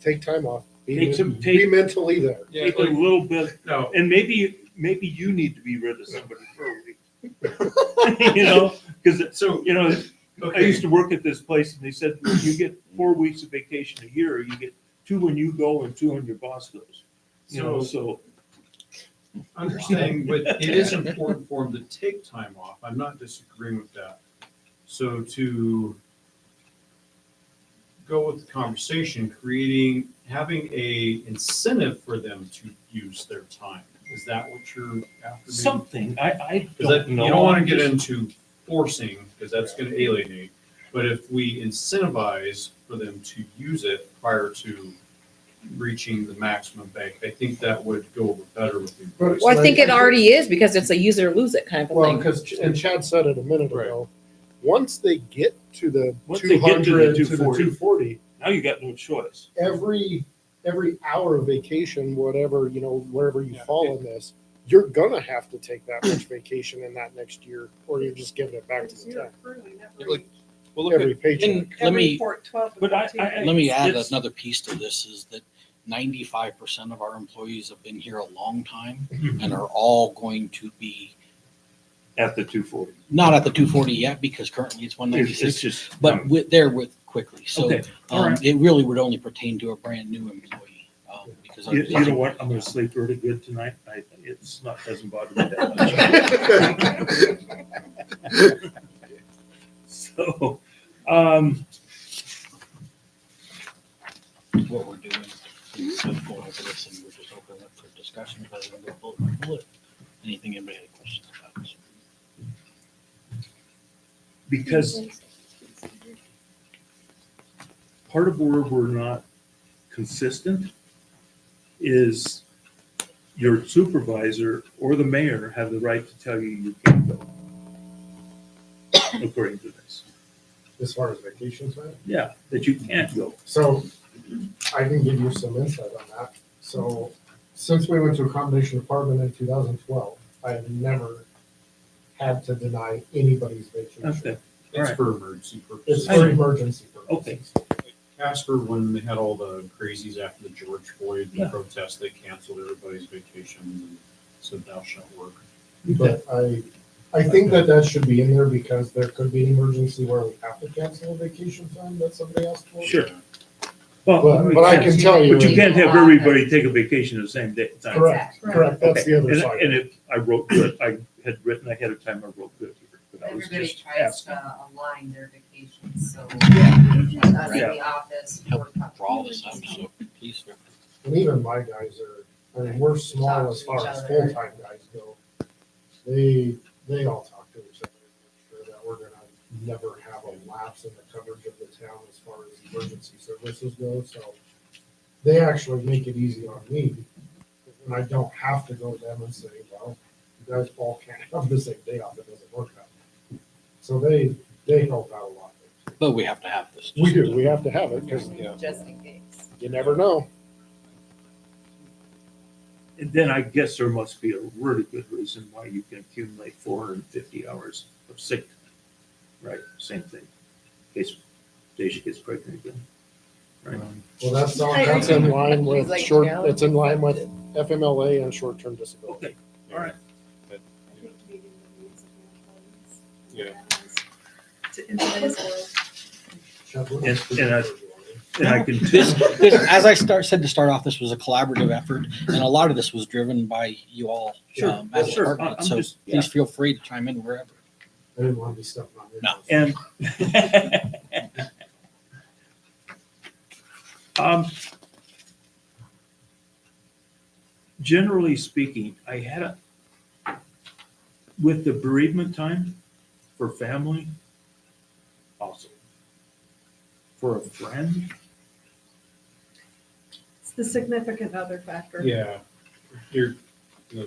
take time off. Be, Take some- be take- mentally there. Yeah, Take a little bit, no, and maybe, maybe you need to be rid of somebody for a week. You know, because, so, you know, I okay, used to work at this place and they said, you get four weeks of vacation a year, you get two when you go and two when your boss goes. You know, so, so understanding, but it is important for them to take time off. I'm not disagreeing with that. So to go with the conversation, creating, having a incentive for them to use their time. Is that what you're after? maybe? something, I, I Because that, don't you know. don't want to get into forcing, because that's going to alienate. But if we incentivize for them to use it prior to reaching the maximum bank, I think that would go over better with the employees. Well, I think it already is because it's a use it or lose it kind of a Well, thing. because and Chad said it a minute Right. ago. Once they get to the Once two they get to the hundred to the 240. two forty, Now you got no choice. every every hour of vacation, whatever you know, wherever you Yeah. fall in this, you're gonna have to take that much vacation in that next year, or you're just giving it back to the town. Well, look, Every paycheck. and let me, But I- I- Let let me add It's- another piece to this is that ninety-five percent of our employees have been here a long time and are all going to be, At the two forty. not at the two forty yet, because currently it's one It's it's ninety-six, just. but with, there with quickly. So, Okay, all um, right. it really would only pertain to a brand new employee, um, because. You, you know otherwise- what? I'm gonna sleep really good tonight. I, it's not, doesn't bother me that much. So, um, What we're doing. is we're going over this and we're just opening up for discussion, but I'm gonna go bullet by bullet. Anything anybody had questions about? because part of where we're not consistent is your supervisor or the mayor have the right to tell you you can't go. According to this. As far as vacations, man. Yeah, that you can't go. So I can give you some insight on that. So since we went to a combination apartment in two thousand twelve, I have never had to deny anybody's vacation. Okay. It's for emergency It's purposes. for emergency purposes. Casper, when they had all the crazies after the George Floyd Yeah. protest, they canceled everybody's vacation and said thou shalt work. But I, I think that that should be in there because there could be an emergency where we have to cancel a vacation time that somebody asked for. Sure. But, but I can tell you, But you can't have everybody take a vacation the same day. time. correct, correct, that's Okay, the other and- side. And if I wrote good, I had written ahead of time, I wrote good here, but I was Everybody just tries asking. to align their vacations, so us in the office. Help we're- Draw this up, so please. And even my guys are, I mean, we're small as far as full-time guys go. They, they all talk to each other, to make sure that we're gonna never have a lapse in the coverage of the town as far as emergency services go, so. They actually make it easy on me, and I don't have to go to them and say, well, you guys all can't have the same day off, it doesn't work out. So they, they help out a lot. But we have to have this. we have to have it, cause you Just in case. never know. And then I guess there must be a really good reason why you can accumulate four hundred and fifty hours of sick. time, Right, same thing. In case Deja gets pregnant again. Right. Well, that's, all- I that's in line with He's like, short, "No." that's in line with FMLA and short-term disability. Okay, all right. Yeah. To in today's world. And- and I- And I can. This, this, as I start, said to start off, this was a collaborative effort, and a lot of this was driven by you all. Sure, um, as a sure, department. I- I'm So just- please feel free to chime in wherever. I didn't want to be stepping on your No. toes. And. Um, Generally speaking, I had a, with the bereavement time for family, awesome. For a friend, It's the significant other factor. Yeah. You're, you know,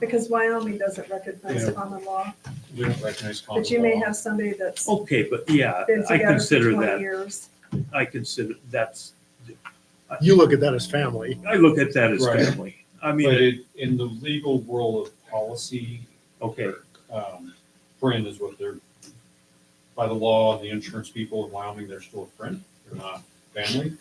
Because Wyoming doesn't recognize Yeah. common law, we don't recognize common but you may law. have somebody that's okay, but yeah, been Oh, I together for consider twenty that, years. I consider, that's, You look at that as family. I look at that as Right. family. I But mean, it, in the legal world of policy, okay, um, friend is what they're, by the law and the insurance people in Wyoming, they're still a friend. They're not family.